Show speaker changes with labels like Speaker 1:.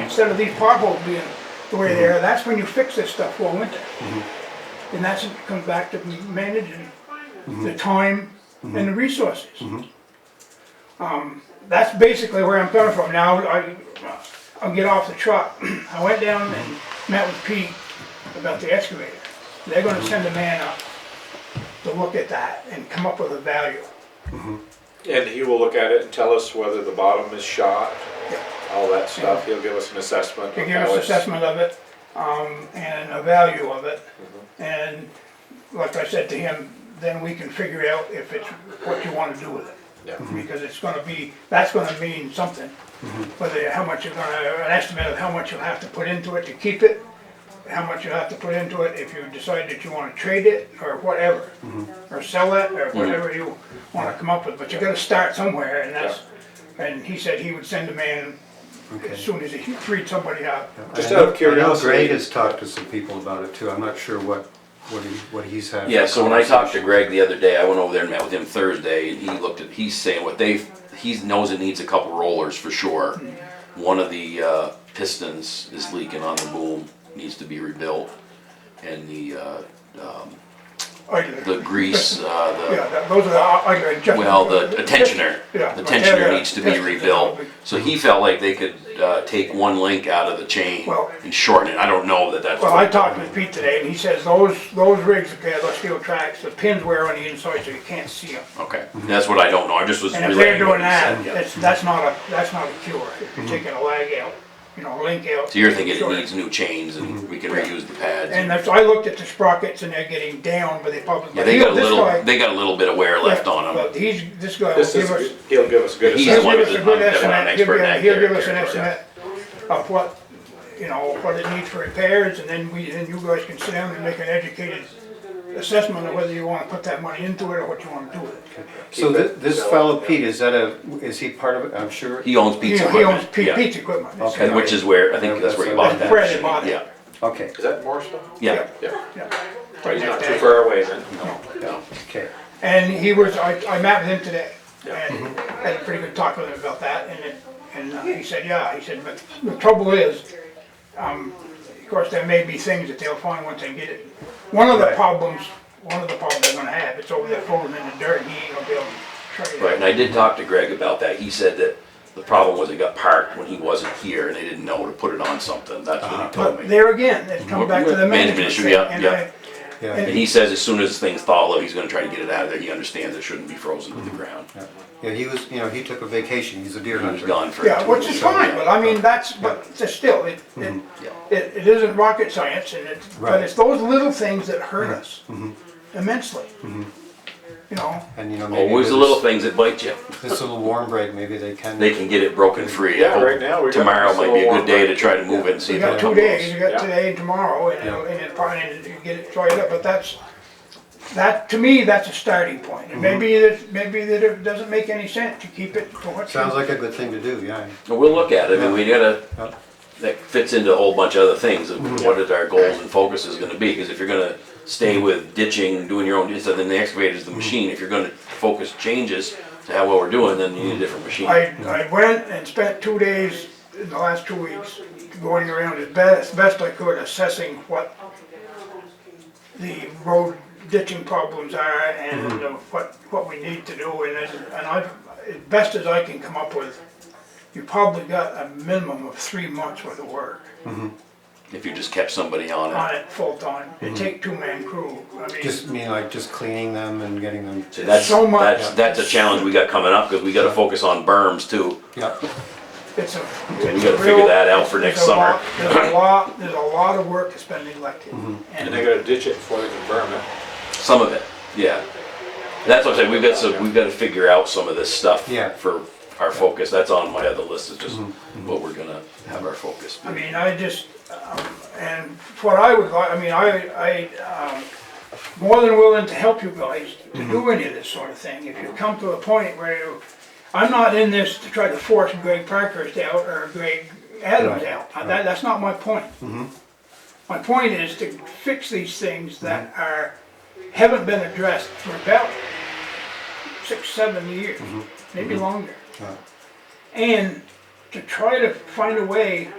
Speaker 1: instead of these potholes being the way they are, that's when you fix this stuff for winter. And that's, it comes back to managing the time and the resources. Um, That's basically where I'm coming from. Now, I, I'll get off the truck. I went down and met with Pete about the excavator. They're gonna send a man up to look at that and come up with a value.
Speaker 2: And he will look at it and tell us whether the bottom is shot,
Speaker 1: Yeah.
Speaker 2: all that stuff. He'll give us an assessment. of
Speaker 1: They give
Speaker 2: how
Speaker 1: us an
Speaker 2: it's-
Speaker 1: assessment of it, um, and a value of it. And like I said to him, then we can figure out if it's what you wanna do with it.
Speaker 2: Yeah.
Speaker 1: Because it's gonna be, that's gonna mean something.
Speaker 3: Mm-hmm.
Speaker 1: Whether, how much you're gonna, an estimate of how much you'll have to put into it to keep it, how much you'll have to put into it if you decide that you wanna trade it, or whatever.
Speaker 3: Mm-hmm.
Speaker 1: Or sell it, or whatever you wanna come up with, but you gotta start somewhere, and that's, and he said he would send a man as
Speaker 4: Okay.
Speaker 1: soon as he freed somebody up.
Speaker 2: Just
Speaker 4: I
Speaker 2: out of
Speaker 4: know-
Speaker 2: curiosity-
Speaker 4: I know Greg has talked to some people about it too. I'm not sure what, what he, what he's had.
Speaker 3: Yeah, so when I talked to Greg the other day, I went over there and met with him Thursday, and he looked at, he's saying what they, he knows it needs a couple rollers for sure. One of the uh, pistons is leaking on the boom, needs to be rebuilt, and the, uh, the
Speaker 1: The
Speaker 3: grease,
Speaker 1: Yeah,
Speaker 3: uh,
Speaker 1: that- those are the, I can
Speaker 3: the,
Speaker 1: adjust.
Speaker 3: well, the the tensioner,
Speaker 1: Yeah,
Speaker 3: the
Speaker 1: okay, yeah,
Speaker 3: tensioner needs to be
Speaker 1: tensioner.
Speaker 3: rebuilt. So he felt like they could uh, take one link out of the chain
Speaker 1: Well-
Speaker 3: and shorten it, I don't know that that's.
Speaker 1: Well, I talked with Pete today and he says those, those rigs, okay, those steel tracks, the pins wear on the inside so you can't see them.
Speaker 3: Okay, that's what I don't know, I just was
Speaker 1: And if they're
Speaker 3: relaying what
Speaker 1: doing
Speaker 3: he said.
Speaker 1: that,
Speaker 3: yeah. Mm-hmm.
Speaker 1: that's, that's not a, that's not a cure. If you're taking a lag out, you know, a link out.
Speaker 3: So you're thinking it
Speaker 1: Sure. Mm-hmm.
Speaker 3: needs new chains and we can reuse the pads?
Speaker 1: And that's, I looked at the sprockets and they're getting down, but they probably.
Speaker 3: Yeah, they got a
Speaker 1: this guy-
Speaker 3: little, they got a little bit of wear left on
Speaker 1: But
Speaker 3: them.
Speaker 1: he's, this guy will
Speaker 2: This
Speaker 1: give us.
Speaker 2: is, he'll give us good
Speaker 3: He's
Speaker 1: He'll
Speaker 3: the
Speaker 2: assessment.
Speaker 3: one
Speaker 1: give us a
Speaker 3: that
Speaker 1: good
Speaker 3: I'm- I'm not an
Speaker 1: estimate, he'll
Speaker 3: expert in
Speaker 1: give,
Speaker 3: that
Speaker 1: he'll give us an
Speaker 3: territory,
Speaker 1: estimate of what, you know, what it needs for repairs, and then we, then you guys can sit down and make an educated assessment of whether you wanna put that money into it or what you wanna do with it.
Speaker 4: So
Speaker 2: Keep
Speaker 4: thi-
Speaker 2: it
Speaker 4: this
Speaker 2: going,
Speaker 4: fellow
Speaker 2: yeah.
Speaker 4: Pete, is that a, is he part of it? I'm sure.
Speaker 3: He owns
Speaker 1: You
Speaker 3: Pizza
Speaker 1: know, he owns
Speaker 3: Equipment.
Speaker 1: Pete,
Speaker 3: yeah.
Speaker 1: Pete's equipment. it's-
Speaker 4: Okay.
Speaker 3: And which is where, I think that's where he bought
Speaker 1: That's where they
Speaker 3: that.
Speaker 1: bought it.
Speaker 3: Yeah,
Speaker 4: Okay,
Speaker 2: Is that Morrisville?
Speaker 3: yeah.
Speaker 2: Yeah.
Speaker 1: Yeah.
Speaker 2: He's not
Speaker 1: Right
Speaker 2: too
Speaker 1: there.
Speaker 2: far away then.
Speaker 3: No.
Speaker 4: okay.
Speaker 1: And he was, I, I met with him today,
Speaker 2: Yeah.
Speaker 1: and had a pretty good talk with him about that, and it, and uh, he said, yeah, he said, but the trouble is, um, of course, there may be things that they'll find once they get it. One of the
Speaker 4: Right.
Speaker 1: problems, one of the problems they're gonna have, it's over there floating in the dirt, and he ain't gonna be able to trade it.
Speaker 3: Right, and I did talk to Greg about that. He said that the problem was it got parked when he wasn't here and they didn't know to put it on something. That's what he told
Speaker 1: Uh-huh. But
Speaker 3: me.
Speaker 1: there again, it comes back to the
Speaker 3: Management
Speaker 1: management
Speaker 3: issue,
Speaker 1: thing,
Speaker 3: yeah,
Speaker 1: and
Speaker 3: yeah.
Speaker 1: I,
Speaker 4: Yeah.
Speaker 3: And
Speaker 1: and
Speaker 3: he says as soon as things thaw out, he's gonna try to get it out of there. He understands it shouldn't be frozen to
Speaker 1: Mm-hmm.
Speaker 3: the ground.
Speaker 4: Yeah, he was, you know, he took a vacation. He's a deer
Speaker 3: He was
Speaker 4: hunter.
Speaker 3: gone for.
Speaker 1: Yeah,
Speaker 3: two
Speaker 1: which
Speaker 3: weeks,
Speaker 1: is
Speaker 3: so,
Speaker 1: fine,
Speaker 3: yeah. Mm-hmm.
Speaker 1: but I mean, that's, but it's still, it, it, it it isn't rocket science and it's, but
Speaker 4: Right. Mm-hmm.
Speaker 1: it's those little things that hurt us immensely. You know,
Speaker 4: And you know, maybe.
Speaker 3: Always the
Speaker 4: with
Speaker 3: little
Speaker 4: this-
Speaker 3: things that bite you.
Speaker 4: This little warm break, maybe they can.
Speaker 3: They can get it broken free.
Speaker 2: Yeah, right now we've got
Speaker 3: Tomorrow
Speaker 2: this
Speaker 3: might be a
Speaker 2: little
Speaker 3: good day
Speaker 2: warm
Speaker 3: to try to move it and see
Speaker 1: you
Speaker 3: if
Speaker 1: got
Speaker 3: it
Speaker 1: two
Speaker 3: comes.
Speaker 1: days, you
Speaker 2: Yeah.
Speaker 1: got today and tomorrow and, it'll-
Speaker 4: Yeah.
Speaker 1: and it probably, and you get it dried up, but that's, that, to me, that's a starting point. And
Speaker 4: Mm-hmm.
Speaker 1: maybe that, maybe that it doesn't make any sense to keep it for what.
Speaker 4: Sounds like a good thing to do, yeah.
Speaker 3: Well, We'll look at it, I mean, we gotta,
Speaker 4: Yeah.
Speaker 3: that fits into a whole bunch of other things, of
Speaker 1: Mm-hmm.
Speaker 3: what is our goals and focus is gonna be, because if you're gonna stay with ditching, doing your own, instead then the excavator's the
Speaker 1: Mm-hmm.
Speaker 3: machine, if you're gonna focus changes to how well we're doing, then you need a different machine.
Speaker 1: Mm-hmm. I, I went and spent two days in the last two weeks going around as best, as best I could assessing what the road ditching problems are and
Speaker 3: Mm-hmm.
Speaker 1: uh, what, what we need to do and as, and I, as best as I can come up with, you probably got a minimum of three months worth of work
Speaker 3: If you just kept somebody on
Speaker 1: on
Speaker 3: it,
Speaker 1: it full time.
Speaker 3: Mm-hmm.
Speaker 1: It take two man crew, I mean.
Speaker 4: Just mean like just cleaning them and getting them.
Speaker 3: so that's,
Speaker 1: so much-
Speaker 3: that's, that's a challenge we got coming up, because we gotta focus on berms too.
Speaker 4: Yeah,
Speaker 1: It's a.
Speaker 3: we gotta figure that out for next summer.
Speaker 1: There's a lot, there's a lot of work that's been neglected.
Speaker 3: Mm-hmm.
Speaker 2: And they gotta ditch it before they can burn it.
Speaker 3: Some of it, yeah. That's what I'm saying, we've got some, we've gotta figure out some of this stuff.
Speaker 4: Yeah.
Speaker 3: For our focus, that's on my other list, is just what we're gonna have our focus. be.
Speaker 1: I mean, I just, um, and what I would like, I mean, I, I, um, more than willing to help you guys
Speaker 4: Mhm.
Speaker 1: to do any of this sort of thing. If you come to a point where you, I'm not in this to try to force Greg Parkhurst out or Greg Adams
Speaker 4: Right, Mm-hmm.
Speaker 1: out. Uh, That, that's not my point. My point is to fix these things
Speaker 4: Mm-hmm.
Speaker 1: that are, haven't been addressed for about six, seven
Speaker 4: Mm-hmm.
Speaker 1: years, maybe longer.
Speaker 4: Yeah.
Speaker 1: And to try to find a way